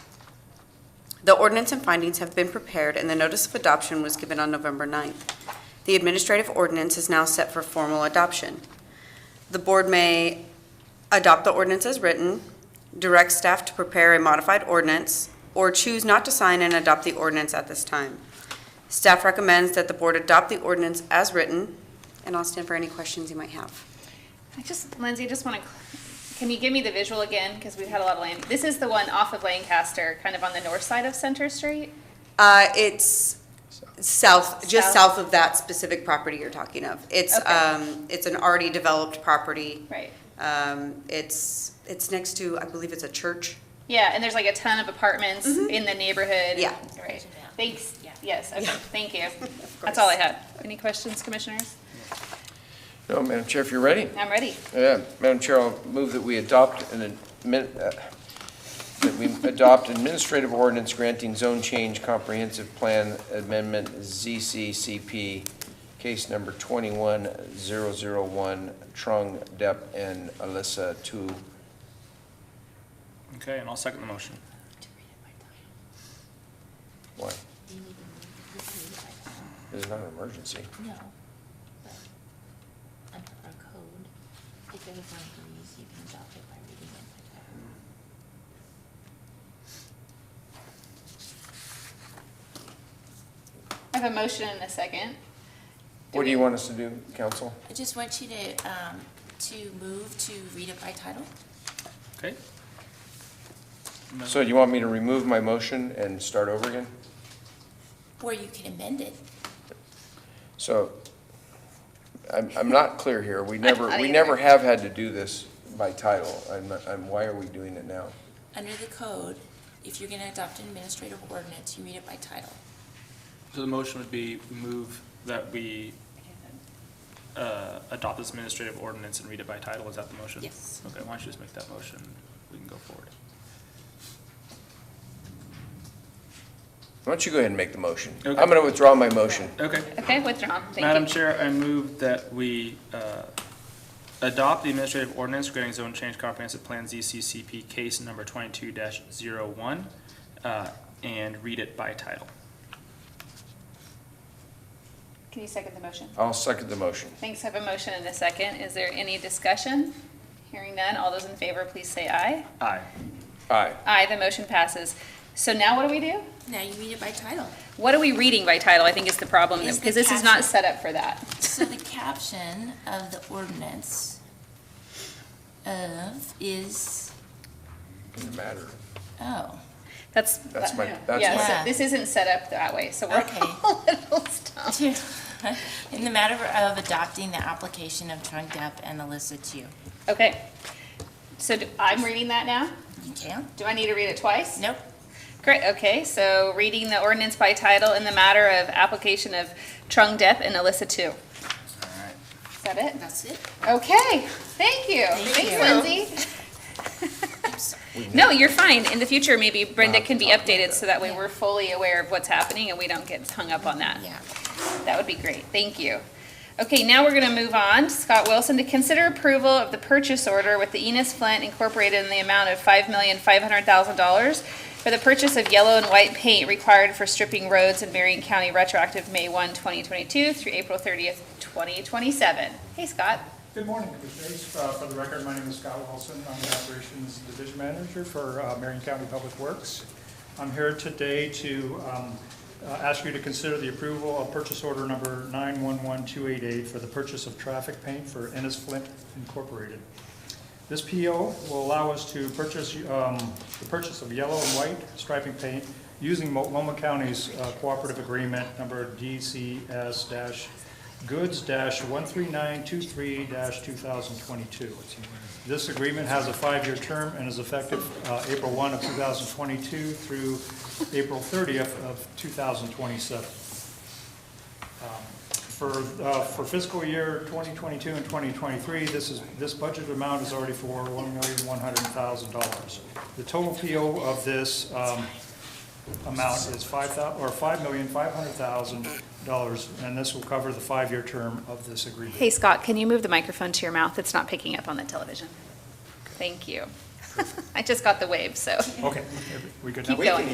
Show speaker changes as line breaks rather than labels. The ordinance and findings have been prepared, and the notice of adoption was given on November 9th. The administrative ordinance is now set for formal adoption. The board may adopt the ordinance as written, direct staff to prepare a modified ordinance, or choose not to sign and adopt the ordinance at this time. Staff recommends that the board adopt the ordinance as written, and I'll stand for any questions you might have.
I just, Lindsay, I just want to, can you give me the visual again? Because we've had a lot of land. This is the one off of Lancaster, kind of on the north side of Center Street.
Uh, it's south, just
South.
south of that specific property you're talking of. It's,
Okay.
um, it's an already developed property.
Right.
Um, it's, it's next to, I believe it's a church.
Yeah, and there's like a ton of apartments in the neighborhood.
Mm-hmm. Yeah.
Right. Thanks. Yes, okay,
Yeah.
thank you. That's all I had. Any questions, commissioners?
No, Oh, Madam Chair, if you're ready.
I'm ready.
Yeah, Madam Chair, I'll move that we adopt an admin, uh, that we adopt administrative ordinance granting zone change comprehensive plan amendment ZCCP, case number 21001, Trung, Depp, and Alyssa to,
Okay, and I'll second the motion.
what? This is not an emergency.
No. but Under our code, if it was not released, you can adopt it by reading it by title.
I have a motion and a second.
What do you want us to do, council?
I just want you to, um, to move to read it by title.
Okay? No.
So you want me to remove my motion and start over again?
Or you can amend it.
So, I'm, I'm not clear here. We never,
not
we
either.
never have had to do this by title. I'm, not- I'm, why are we doing it now?
Under the code, if you're gonna adopt an administrative ordinance, you read it by title.
So the motion would be we move that we uh, adopt this administrative ordinance and read it by title. Is that the motion?
Yes.
Okay, why don't you just make that motion? We can go forward.
Why don't you go ahead and make the motion? I'm
Okay.
going to withdraw my motion.
Okay.
Okay, withdrawn, thank you.
Madam Chair, I move that we uh, adopt the administrative ordinance granting zone change comprehensive plan ZCCP case number 22-01 uh, and read it by title.
Can you second the motion?
I'll second the motion.
Thanks, I have a motion and a second. Is there any discussion? Hearing none, all those in favor, please say aye.
Aye.
Aye.
Aye, the motion passes. So now what do we do?
Now you read it by title.
What are we reading by title, I think is the problem,
Is the
because this is not
caption.
set up for that.
So the caption of the ordinance of is,
Doesn't matter.
oh,
That's.
That's my-
yeah,
that's
yeah, so
my-
This isn't set up that way, so we're
Okay.
all a little stumped.
to, in the matter of adopting the application of Trunk Depp and Alyssa Chu.
Okay. So do- I'm reading that now?
You can?
Do I need to read it twice?
Nope.
Great, okay, so reading the ordinance by title in the matter of application of Trung Depp and Alyssa Two.
All right.
Is that it?
That's it.
Okay, thank you.
Thank
Thanks,
you.
Lindsay. No, you're fine. In the future, maybe Brenda can be updated so that way we're fully aware of what's happening and we don't get hung up on that.
Yeah.
That would be great, thank you. Okay, now we're gonna move on. Scott Wilson, to consider approval of the purchase order with the Enos Flint Incorporated in the amount of five million, five hundred thousand dollars for the purchase of yellow and white paint required for stripping roads in Marion County retroactive May 1, 2022, through April thirtieth, twenty twenty-seven. Hey, Scott.
Good morning, Commissioners. Uh, For the record, my name is Scott Wilson. I'm the Operations Division Manager for uh, Marion County Public Works. I'm here today to um, uh, ask you to consider the approval of purchase order number 911288 for the purchase of traffic paint for Ennis Flint Incorporated. This PO will allow us to purchase, um, the purchase of yellow and white striping paint using Multnomah County's uh, cooperative agreement number DCS dash goods dash one three nine two three dash two thousand twenty-two. This agreement has a five-year term and is effective, uh, April one of two thousand twenty-two through April thirtieth of two thousand twenty-seven. Um, For, uh, for fiscal year 2022 and 2023, this is, this budget amount is already for $1,100,000. The total PO of this um, amount is 5,000, or $5,500,000, and this will cover the five-year term of this agreement.
Hey, Scott, can you move the microphone to your mouth? It's not picking up on the television. Thank you. I just got the wave, so.
Okay, we good now?
Keep going.